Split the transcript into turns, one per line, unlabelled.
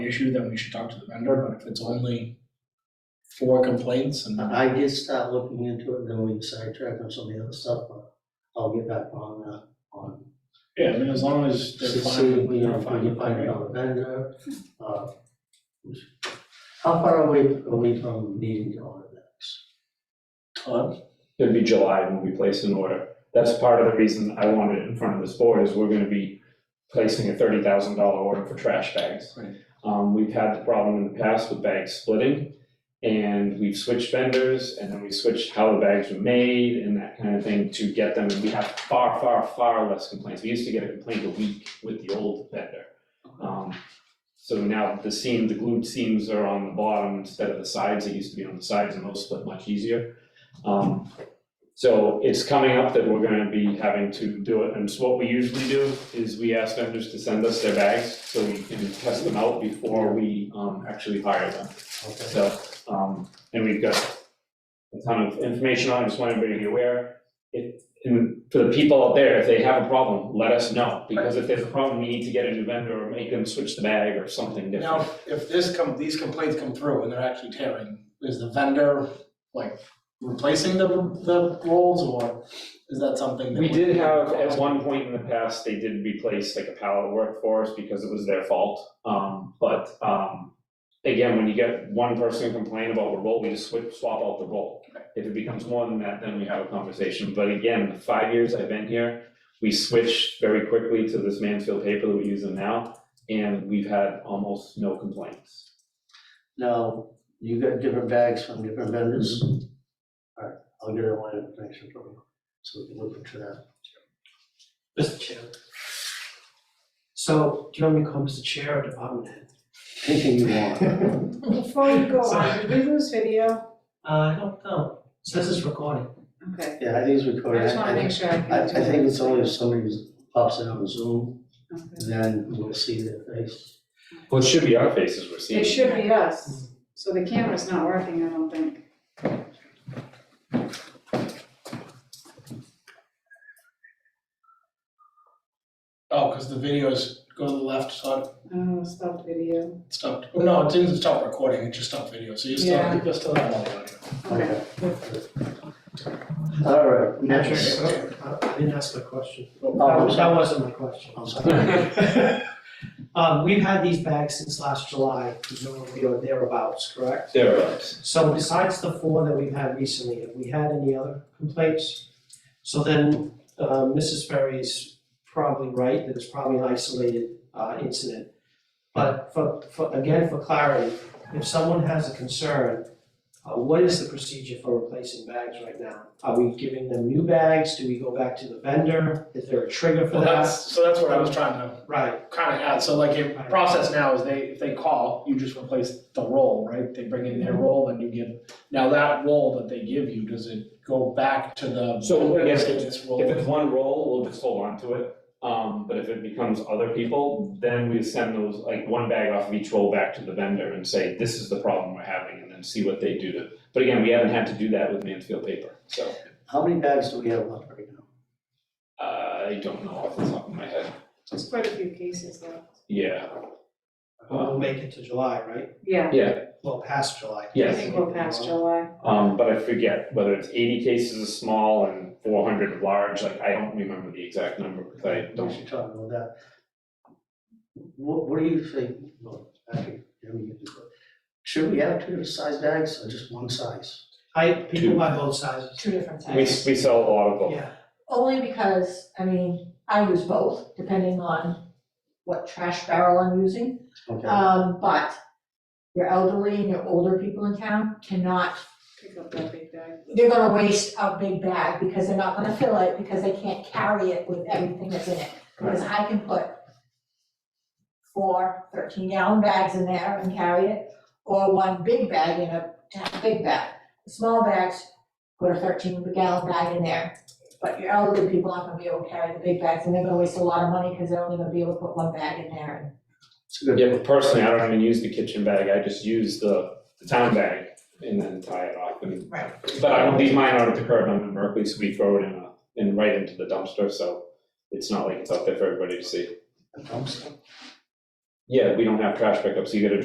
issue, then we should talk to the vendor, but if it's only four complaints and.
I I did start looking into it, then we sidetracked on some of the other stuff, but I'll get back on that, on.
Yeah, I mean, as long as
See,
they're
see,
fine,
we
they're
know, find,
fine.
find another vendor, uh. How far away are we from needing to order that?
Todd?
It'd be July when we place an order. That's part of the reason I want it in front of this board is we're gonna be placing a thirty thousand dollar order for trash bags.
Right.
Um, we've had the problem in the past with bag splitting and we've switched vendors and then we switched how the bags were made and that kind of thing to get them. We have far, far, far less complaints. We used to get a complaint a week with the old vendor. Um, so now the seam, the glued seams are on the bottom instead of the sides. It used to be on the sides and those split much easier. Um, so it's coming up that we're gonna be having to do it, and so what we usually do is we ask vendors to send us their bags so we can test them out before we um actually hire them.
Okay,
So, um, and we've got a ton of information on it, I just want everybody to be aware. If, and for the people out there, if they have a problem, let us know, because if there's a problem, we need to get a new vendor or make them switch the bag or something different.
Now, if this come, these complaints come through and they're actually tearing, is the vendor like replacing the, the rolls or is that something that?
We did have, at one point in the past, they did replace like a pallet work for us because it was their fault. Um, but, um, again, when you get one person complain about the roll, we just switch, swap out the roll. If it becomes more than that, then we have a conversation. But again, the five years I've been here, we switched very quickly to this Mansfield paper that we use them now, and we've had almost no complaints.
now, you got different bags from different vendors? Alright, Mm-hmm. I'll get a line of information from you, so we can look into that.
Mr. Chair. So, do you want me to call Mr. Chair or Department Head?
Anything you want.
Before we go on, did we lose video?
Uh, I don't know, it says it's recording.
Okay,
Yeah, I think it's
I
recorded.
just wanna make sure I can.
I, I think it's only if somebody pops in on Zoom,
Okay.
then we'll see their face.
Well, it should be our faces we're
It
seeing.
should be us, so the camera's not working, I don't think.
Oh, cause the videos go to the left, Todd,
Oh, stop video.
it stopped, oh, no, it didn't stop recording, it just stopped video, so you still,
Yeah.
you still have all the audio.
Okay.
All right,
Actually,
next.
I I didn't ask my question.
Oh,
That
I'm
was- that
sorry.
wasn't my question.
I'm sorry.
Um, we've had these bags since last July, presumably or thereabouts, correct?
Thereabouts.
So besides the four that we've had recently, have we had any other complaints? So then, uh, Mrs. Ferry's probably right, that it's probably an isolated, uh, incident. But for, for, again, for clarity, if someone has a concern, uh, what is the procedure for replacing bags right now? Are we giving them new bags? Do we go back to the vendor? Is there a trigger for
Well,
that?
that's, so that's what I was trying to
Right,
kind of add, so like, if process now is they, if they call, you just replace the roll, right? They bring in their roll and you give, now that roll that they give you, does it go back to the?
So, yeah,
Let's get this roll.
If it's one roll, we'll just hold on to it, um, but if it becomes other people, then we send those, like, one bag off of each roll back to the vendor and say, this is the problem we're having, and then see what they do to. But again, we haven't had to do that with Mansfield paper, so,
How many bags do we have left right now?
uh, I don't know off the top of my head,
There's quite a few cases though.
yeah,
we'll make it to July, right?
Yeah,
yeah,
Well, past July.
I
Yes.
think we're past July.
um, but I forget whether it's eighty cases is small and four hundred of large, like, I don't remember the exact number, because I
We
don't.
should talk about that. What, what do you think, well, actually, let me get this, should we have two size bags or just one size?
I, people by both sizes,
two different
We, we
sizes.
sell a lot of them.
yeah.
Only because, I mean, I use both, depending on what trash barrel I'm using.
Okay,
Um, but your elderly and your older people in town cannot,
Pick up that big bag.
they're gonna waste a big bag because they're not gonna fill it, because they can't carry it with everything that's in it. Because I can put four 13 gallon bags in there and carry it, or one big bag in a, a big bag. The Small bags, put a thirteen gallon bag in there, but your elderly people aren't gonna be able to carry the big bags, and they're gonna waste a lot of money, because they're only gonna be able to put one bag in there, and
it's a good.
Yeah, but personally, I don't even use the kitchen bag, I just use the, the town bag and then tie it off and.
Right.
But I don't leave mine out at the curb, I'm in Berkeley, so we throw it in a, in right into the dumpster, so it's not like it's out there for everybody to see.
A dumpster.
yeah, we don't have trash pickup, so you gotta